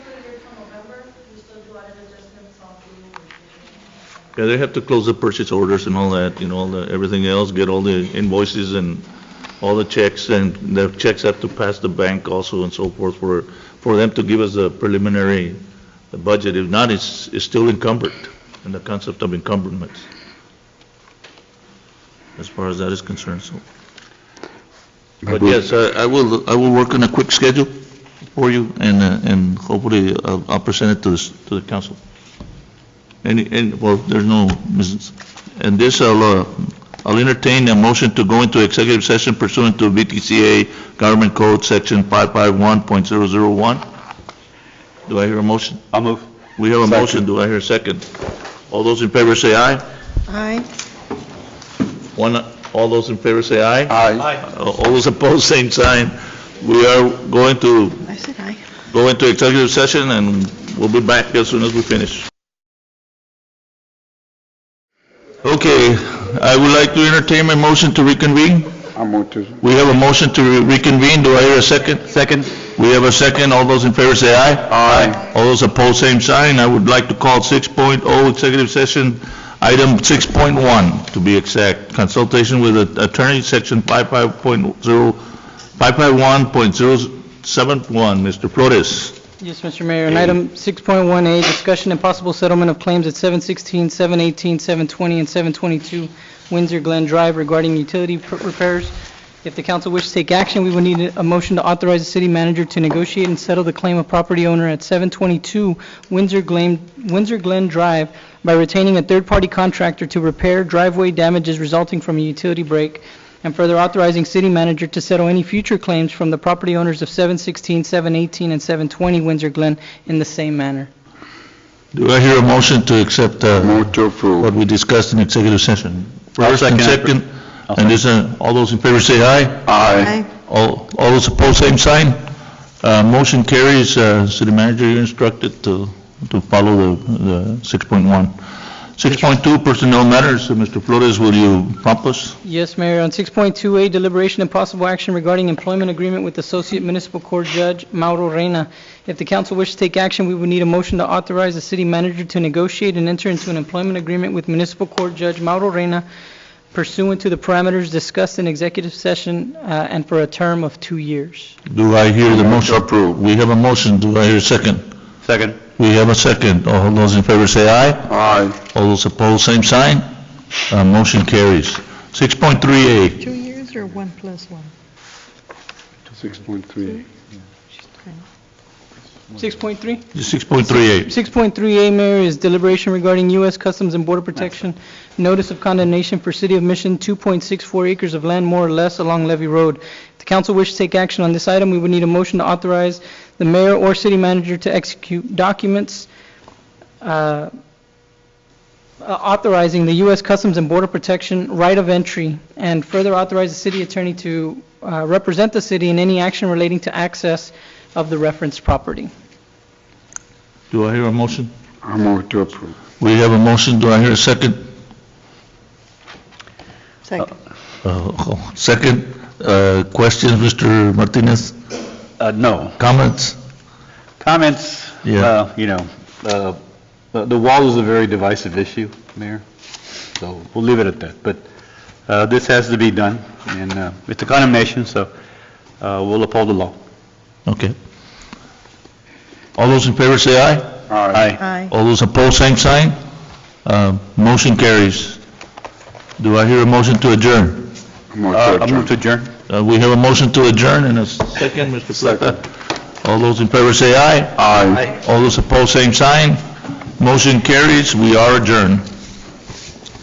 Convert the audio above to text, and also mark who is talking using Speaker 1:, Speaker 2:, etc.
Speaker 1: Yeah, they have to close the purchase orders and all that, you know, all the, everything else, get all the invoices and all the checks, and the checks have to pass the bank also and so forth for, for them to give us a preliminary budget. If not, it's, it's still encumbered, and the concept of encumbrance, as far as that is concerned, so. But yes, I I will, I will work on a quick schedule for you, and, uh, and hopefully uh, I'll I'll present it to the, s- to the council. Any, and, well, there's no, business. and this, I'll, uh, I'll entertain a motion to go into executive session pursuant to VTCA Government Code, Section 551.001. Do I hear a motion?
Speaker 2: I'll move.
Speaker 1: We have a motion, do I hear a second? All those in favor say aye.
Speaker 3: Aye.
Speaker 1: One, all those in favor say aye.
Speaker 2: Aye.
Speaker 1: All those opposed, same sign. We are going to
Speaker 3: I said aye.
Speaker 1: go into executive session, and we'll be back as soon as we finish. Okay, I would like to entertain my motion to reconvene.
Speaker 2: I'll move to.
Speaker 1: We have a motion to reconvene, do I hear a second?
Speaker 2: Second.
Speaker 1: We have a second, all those in favor say aye.
Speaker 2: Aye.
Speaker 1: All those opposed, same sign. I would like to call 6.0 executive session, item 6.1 to be exact, consultation with a- attorney, section 55.0, 551.071, Mr. Flores.
Speaker 4: Yes, Mr. Mayor, and item 6.1A, discussion and possible settlement of claims at 716, 718, 720, and 722 Windsor Glen Drive regarding utility pr- repairs. If the council wishes to take action, we would need a- a motion to authorize the city manager to negotiate and settle the claim of property owner at 722 Windsor Glen, Windsor Glen Drive by retaining a third-party contractor to repair driveway damages resulting from a utility break and further authorizing city manager to settle any future claims from the property owners of 716, 718, and 720 Windsor Glen in the same manner.
Speaker 1: Do I hear a motion to accept uh,
Speaker 2: Move to
Speaker 1: what
Speaker 2: approve.
Speaker 1: we discussed in executive session? First and
Speaker 2: second
Speaker 1: second, and this, uh, all those in favor say aye.
Speaker 2: Aye.
Speaker 1: All all those opposed, same sign. Uh, Motion carries, Uh, City Manager, you're instructed to to follow the the 6.1. 6.2 Personnel Matters, Uh, Mr. Flores, will you prompt us?
Speaker 4: Yes, Mayor, on 6.2A, deliberation and possible action regarding employment agreement with Associate Municipal Court Judge Mauro Reyna. If the council wishes to take action, we would need a motion to authorize the city manager to negotiate and enter into an employment agreement with Municipal Court Judge Mauro Reyna pursuant to the parameters discussed in executive session uh, and for a term of two years.
Speaker 1: Do I hear the motion?
Speaker 2: Approved.
Speaker 1: We have a motion, do I hear a second?
Speaker 2: Second.
Speaker 1: We have a second, all those in favor say aye.
Speaker 2: Aye.
Speaker 1: All those opposed, same sign. Uh, Motion carries. 6.3A,
Speaker 3: Two years or one plus one?
Speaker 2: 6.3.
Speaker 4: 6.3?
Speaker 1: 6.3A.
Speaker 4: 6.3A, Mayor, is deliberation regarding U.S. Customs and Border Protection notice of condemnation for City of Mission 2.64 acres of land more or less along Levy Road. If the council wishes to take action on this item, we would need a motion to authorize the mayor or city manager to execute documents uh, authorizing the U.S. Customs and Border Protection right of entry, and further authorize the city attorney to uh, represent the city in any action relating to access of the referenced property.
Speaker 1: Do I hear a motion?
Speaker 2: I'll move to approve.
Speaker 1: We have a motion, do I hear a second?
Speaker 3: Second.
Speaker 1: Uh, Second, uh, questions, Mr. Martinez?
Speaker 5: Uh, No.
Speaker 1: Comments?
Speaker 5: Comments,
Speaker 1: Yeah.
Speaker 5: uh, you know, uh, the the wall is a very divisive issue, Mayor, so we'll leave it at that. But uh, this has to be done, and uh, it's a condemnation, so uh, we'll uphold the law.
Speaker 1: Okay. All those in favor say aye.
Speaker 5: Aye.
Speaker 3: Aye.
Speaker 1: All those opposed, same sign. Uh, Motion carries. Do I hear a motion to adjourn?
Speaker 2: Move
Speaker 5: Uh,
Speaker 2: to
Speaker 5: I
Speaker 2: adjourn.
Speaker 5: move to adjourn.
Speaker 1: Uh, We have a motion to adjourn and a second, Mr. Plata. All those in favor say aye.
Speaker 2: Aye.
Speaker 1: All those opposed, same sign. Motion carries, we are adjourned.